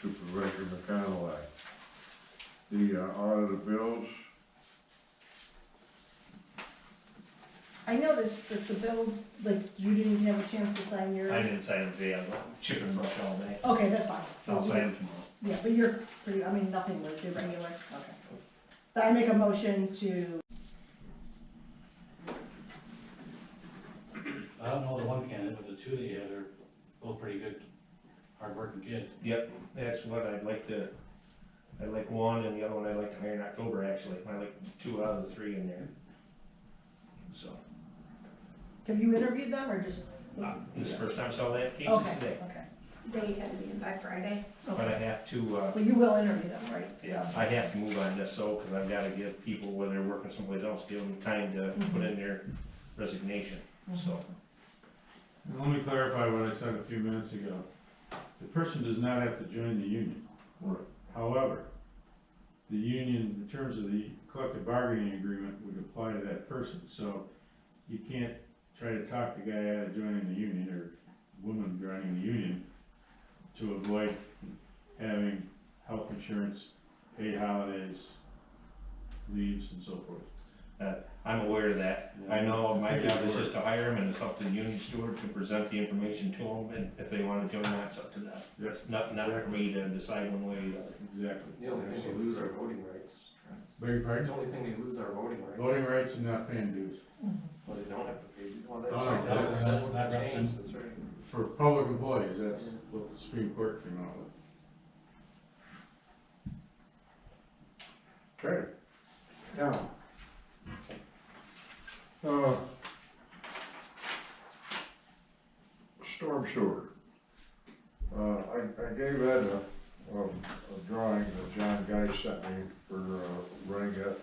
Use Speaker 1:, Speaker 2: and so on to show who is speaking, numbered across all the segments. Speaker 1: Supervisor McConaughey. The uh, audit of bills,
Speaker 2: I noticed that the bills, like, you didn't have a chance to sign yours.
Speaker 3: I didn't sign them today, I was chipping brush all day.
Speaker 2: Okay, that's fine.
Speaker 3: I'll sign them tomorrow.
Speaker 2: Yeah, but you're pretty, I mean, nothing was irregular, okay. So I make a motion to,
Speaker 4: I don't know the one candidate, but the two that you had are both pretty good, hardworking kids.
Speaker 3: Yep, that's what I'd like to, I'd like one and the other one I'd like to hire in October, actually. I like two out of the three in there. So,
Speaker 2: have you interviewed them or just?
Speaker 3: uh, this is the first time I saw the applications
Speaker 2: Okay,
Speaker 3: today,
Speaker 2: okay.
Speaker 5: They had me in by Friday.
Speaker 3: but I have to, uh,
Speaker 2: Well, you will interview them, right?
Speaker 3: Yeah, I have to move on this though, cause I've gotta give people, whether they're working someplace else, give them time to put in their resignation, so.
Speaker 1: and let me clarify what I said a few minutes ago. The person does not have to join the union. However, the union, in terms of the collective bargaining agreement, would apply to that person, so you can't try to talk the guy out of joining the union or woman joining the union to avoid having health insurance, paid holidays, leaves and so forth.
Speaker 3: I'm aware of that, I know my job is just to hire them and it's up to the union steward to present the information to them, and if they wanna join, that's up to them.
Speaker 1: Yes.
Speaker 3: Not, not for me to decide one way or the other.
Speaker 1: Exactly.
Speaker 6: The only thing they lose are voting rights.
Speaker 1: Beg your
Speaker 6: The
Speaker 1: pardon?
Speaker 6: only thing they lose are voting rights.
Speaker 1: Voting rights and not paying dues.
Speaker 2: mm-hmm.
Speaker 6: Well, they don't have to pay, well, that's
Speaker 1: Oh,
Speaker 6: right,
Speaker 1: that-
Speaker 6: that was, that
Speaker 4: that
Speaker 6: would
Speaker 4: represents-
Speaker 6: change, that's right.
Speaker 1: For public employees, that's what the Supreme Court came out with. Okay, now. Uh. Storm sewer. Uh, I, I gave Ed a, a a drawing that John Guy sent me for, uh, running that,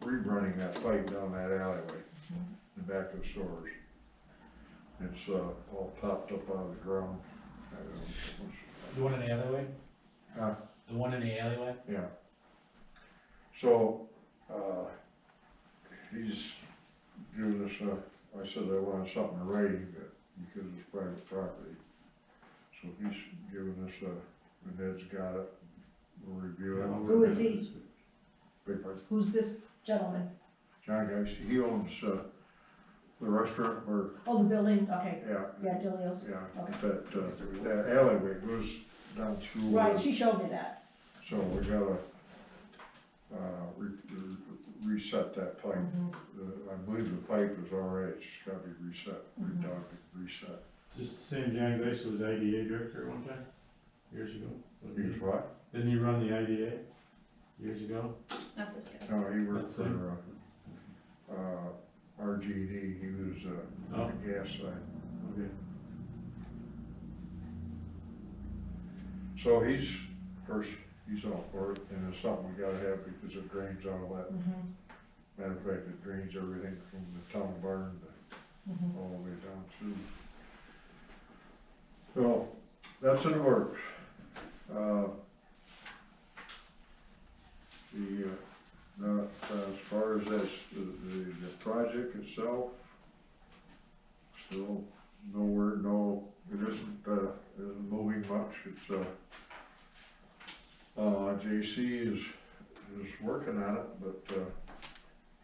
Speaker 1: rerunning that pipe down that alleyway, in back of the stores. It's, uh, all popped up out of the ground. I don't know.
Speaker 4: The one in the alleyway?
Speaker 1: Huh?
Speaker 4: The one in the alleyway?
Speaker 1: Yeah. So, uh, he's giving us a, I said I wanted something in writing, but because it's private property. So he's giving us a, and Ed's got it, we'll review
Speaker 7: Um,
Speaker 1: it.
Speaker 2: Who is he?
Speaker 1: Big part.
Speaker 2: Who's this gentleman?
Speaker 1: John Geis, he owns, uh, the restaurant, or,
Speaker 2: Oh, the building, okay,
Speaker 1: yeah,
Speaker 2: yeah, Delio's.
Speaker 1: yeah,
Speaker 2: Okay.
Speaker 1: that, uh, that alleyway goes down through. uh,
Speaker 2: Right, she showed me that.
Speaker 1: So we gotta, uh, re- re- reset that pipe.
Speaker 2: Mm-hmm,
Speaker 1: Uh, I believe the pipe is all right, it's just gotta be reset, redone, reset.
Speaker 7: Is this the same John Grace who was IDA director at one time, years ago?
Speaker 1: He's what?
Speaker 7: Didn't he run the IDA years ago?
Speaker 5: Not this guy.
Speaker 1: No, he worked
Speaker 7: That's him.
Speaker 1: for, uh, uh, RGD, he was, uh,
Speaker 7: Oh.
Speaker 1: on the gas side.
Speaker 7: Okay.
Speaker 1: So he's, first, he's all for it, and it's something we gotta have because it drains all that.
Speaker 2: Mhm,
Speaker 1: Matter of fact, it drains everything from the town barn to
Speaker 2: mhm.
Speaker 1: all the way down through. So, that's in the works. Uh, The, uh, now, as far as this, the, the- the project itself, still nowhere, no, it isn't, uh, isn't moving much, it's, uh, uh, JC is, is working on it, but, uh,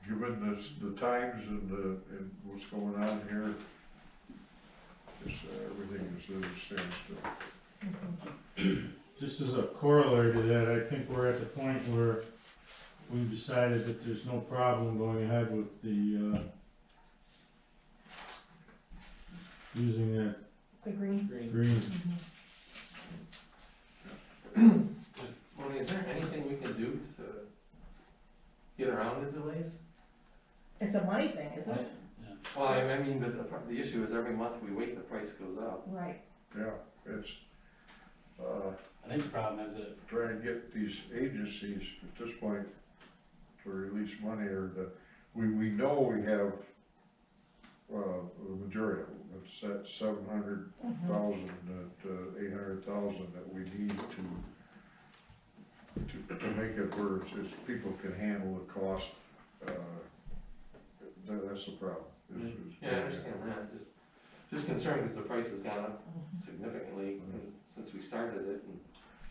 Speaker 1: given the, s- the times and the, and what's going on here, it's, uh, everything is at a standstill.
Speaker 2: mm-hmm.
Speaker 7: Just as a corollary to that, I think we're at the point where we've decided that there's no problem going ahead with the, uh, using that
Speaker 2: The green.
Speaker 6: Green.
Speaker 7: green.
Speaker 3: Mm-hmm.
Speaker 6: Moni, is there anything we can do to get around the delays?
Speaker 2: It's a money thing, isn't it?
Speaker 6: Well, I I mean, but the, pro- the issue is every month we wait, the price goes up.
Speaker 2: Right.
Speaker 1: Yeah, it's, uh,
Speaker 4: I think the problem is that,
Speaker 1: trying to get these agencies at this point to release money or to, we, we know we have, uh, the majority, of them. it's that seven hundred
Speaker 2: Mhm.
Speaker 1: thousand, uh, eight hundred thousand that we need to, to, to make it where it's, it's people can handle the cost, uh, tha- that's the problem. is- is-
Speaker 6: Yeah, I understand
Speaker 2: mm-hmm.
Speaker 6: that,
Speaker 1: Mm-hmm.
Speaker 6: just, just concerned because the price has gone up significantly and since we started it and